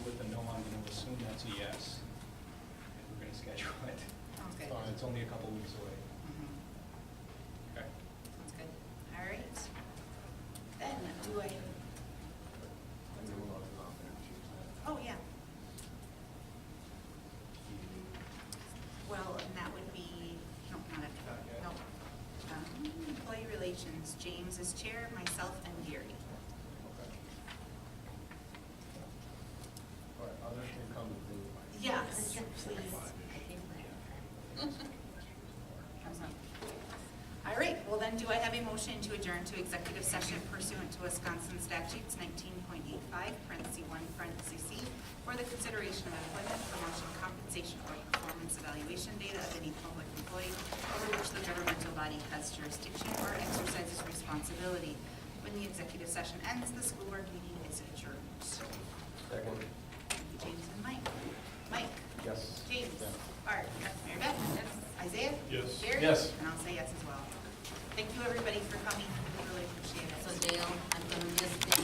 and it's only a couple weeks away. Okay. Sounds Mm-hmm. good. All right. Then, do I, oh, yeah, well, and that would be, no, not after, Not yet. no. Um, Employee Relations, James is chair, myself and Gary. All right, others can come and do Yes, please. Comes up. All right, well then, do I have a motion to adjourn to executive session pursuant to Wisconsin statutes nineteen point eight five, parentheses one, parentheses C, for the consideration of employment, promotion, compensation, or performance evaluation data of any public employee over which the governmental body has jurisdiction or exercises responsibility. When the executive session ends, the school board meeting is adjourned. Second. Thank you, James and Mike. Mike? Yes. James. Yeah. Bart. Mary Beth. Isaiah. Yes. Jerry. Yes. And I'll say yes as well. Thank you, everybody, for coming. We really appreciate it. So Dale, I'm gonna miss the